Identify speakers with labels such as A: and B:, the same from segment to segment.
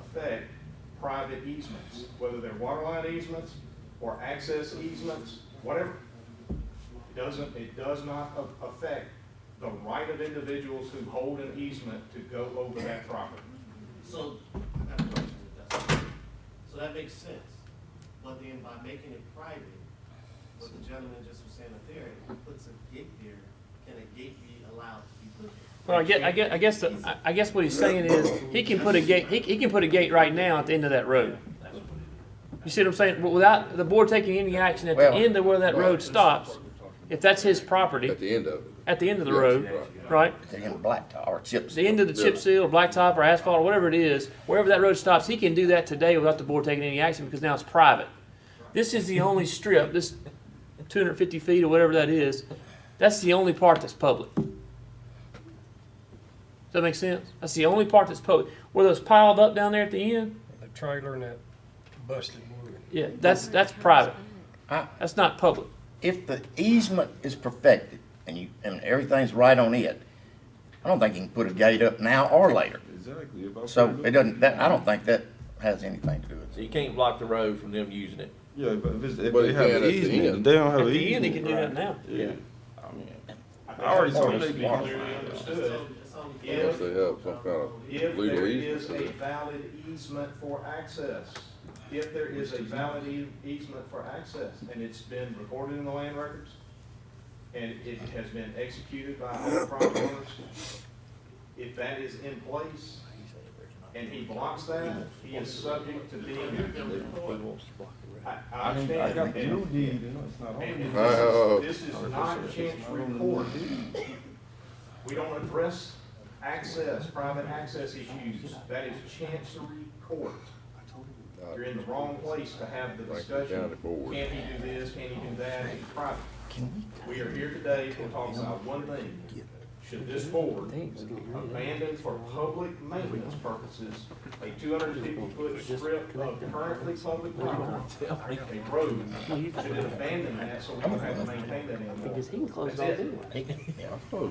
A: affect private easements, whether they're waterline easements or access easements, whatever. It doesn't, it does not a- affect the right of individuals who hold an easement to go over that property.
B: So, I got a question with that. So that makes sense, but then by making it private, what the gentleman just was saying up there, if he puts a gate there, can a gate be allowed to be put there?
C: Well, I guess, I guess, I guess, the- I- I guess what he's saying is, he can put a gate, he, he can put a gate right now at the end of that road. You see what I'm saying? But Without the board taking any action at the
D: Well-
C: end of where that road stops, if that's his property,
E: At the end of it.
C: at the end of the
E: Yes,
C: road,
E: right.
C: right?
D: They're gonna blacktop or chips.
C: The end of the chip seal, or blacktop, or asphalt, or whatever it is, wherever that road stops, he can do that today without the board taking any action because now it's private. This is the only strip, this two hundred fifty feet or whatever that is, that's the only part that's public. Does that make sense? That's the only part that's public. Where those piled up down there at the end,
F: The trailer and that busted wood.
C: yeah, that's, that's private.
D: I-
C: That's not public.
D: If the easement is perfected and you, and everything's right on it, I don't think you can put a gate up now or later.
E: Exactly. if I
D: So
E: put
D: it
E: up-
D: doesn't, that, I don't think that has anything to do with
G: So
D: it.
G: you can't block the road from them using it.
H: Yeah, but if, it's, if
E: But
H: they
E: it
H: have
E: can at
H: an
E: the
H: easement,
E: end.
H: they don't have
C: At
H: an
C: the end, he
H: easement.
C: can do that now.
E: Yeah.
G: I mean,
A: I think
H: I already
A: that's
H: told
A: always
H: you.
A: been clearly understood.
B: It's only- it's only-
A: If-
E: Unless they have some kind of
A: If
E: legal
A: there
E: easement
A: is
E: to
A: a
E: it.
A: valid easement for access, if there is a valid e- easement for access, and it's been recorded in the land records, and it has been executed by all the property owners, if that is in place, and he blocks that, he is subject to being, I, I understand.
H: I got the
A: and-
H: new deed, you know, it's not on
A: and
H: there.
E: Uh,
A: this is, this is not a chance report. We don't address access, private access issues. That is chancery court. You're in the wrong place to have the
E: Like the
A: discussion.
E: county board.
A: Can he do this? Can he do that? It's private. We are here today to talk about one thing. Should this board abandon for public maintenance purposes a two hundred and fifty foot strip of currently public property? A road, should it abandon that so we don't have to maintain that anymore?
I: Because he can close it all
A: That's it.
I: anyway.
C: All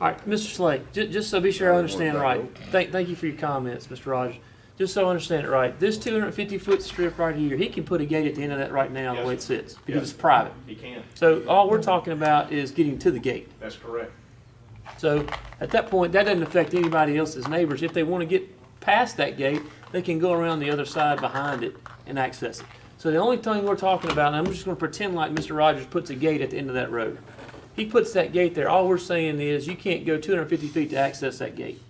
C: right, Mr. Slate, ju- just so be sure I understand right, thank, thank you for your comments, Mr. Rogers. Just so I understand it right, this two hundred and fifty foot strip right here, he can put a gate at the end of that right now, the way it sits, because it's private.
A: He can,
C: So all we're talking about is getting to the gate.
A: that's correct.
C: So at that point, that doesn't affect anybody else's neighbors. If they want to get past that gate, they can go around the other side behind it and access it. So the only thing we're talking about, and I'm just going to pretend like Mr. Rogers puts a gate at the end of that road. He puts that gate there. All we're saying is you can't go 250 feet to access that gate,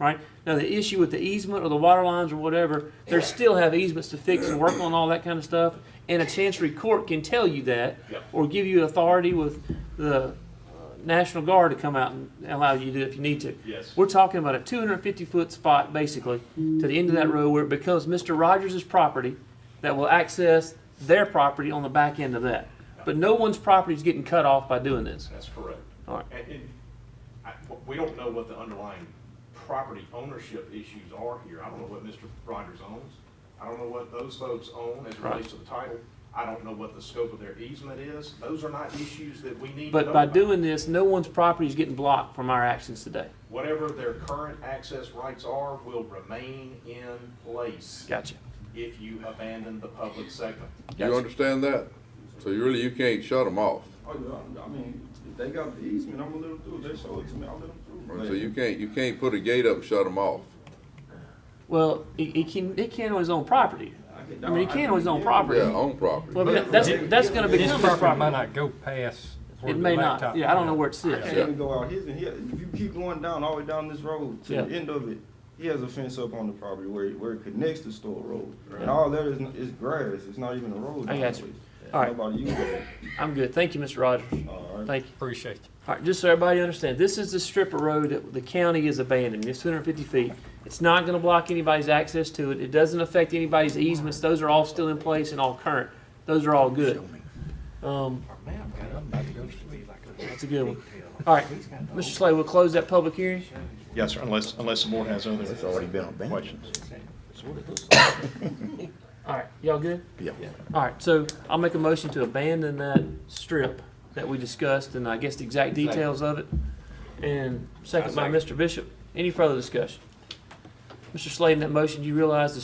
C: right? Now the issue with the easement or the water lines or whatever, they still have easements to fix and work on all that kind of stuff. And a chancery court can tell you that,
A: Yep.
C: or give you authority with the uh, National Guard to come out and allow you to do it if you need to.
A: Yes.
C: We're talking about a 250 foot spot basically to the end of that road where it becomes Mr. Rogers' property that will access their property on the back end of that. But no one's property is getting cut off by doing this.
A: That's correct.
C: All right.
A: And, and I, we don't know what the underlying property ownership issues are here. I don't know what Mr. Rogers owns. I don't know what those folks own as it relates to the title. I don't know what the scope of their easement is. Those are not issues that we need to know
C: But by
A: about.
C: doing this, no one's property is getting blocked from our actions today.
A: Whatever their current access rights are will remain in place
C: Gotcha.
A: if you abandon the public segment.
E: You understand that? So you really, you can't shut them off.
H: Oh, yeah, I mean, if they got the easement, I'm gonna let them through. They show it to me, I'll let them through.
E: So you can't, you can't put a gate up and shut them off.
C: Well, he, he can he can own his own property.
H: can,
C: I mean, he can own his own property.
E: Yeah, on property.
C: Well, I mean, that's that's going to
F: His
C: become his
F: property might
C: property.
F: not go past where
C: It
F: the
C: may not.
F: blacktop
C: Yeah, I don't
F: went.
C: know where it
H: I
C: sits.
H: can't
E: Yeah.
H: even go out his and he, if you keep going down, all the way down this road to the
C: Yeah.
H: end of it, he has a fence up on the property where, it- where it connects to Store Road. And all that is, is grass, it's not even a road.
C: I got you.
H: nowadays.
C: All right.
H: Nobody uses it.
C: I'm good. Thank you, Mr. Rogers.
H: All right.
C: Thank you.
F: Appreciate you.
C: All right, just so everybody understands, this is the strip of road that the county is abandoning, it's two hundred and fifty feet. It's not gonna block anybody's access to it, it doesn't affect anybody's easements, those are all still in place and all current, those are all good. Um, that's a good one. All right, Mr. Slay, we'll close that public hearing.
A: Yes, sir, unless, unless the board has other
D: It's already been abandoned.
A: questions.
C: All right, y'all good?
D: Yeah.
C: All right, so I'll make a motion to abandon that strip that we discussed and I guess the exact details of it. And second by Mr. Bishop, any further discussion? Mr. Slay, in that motion, you realize the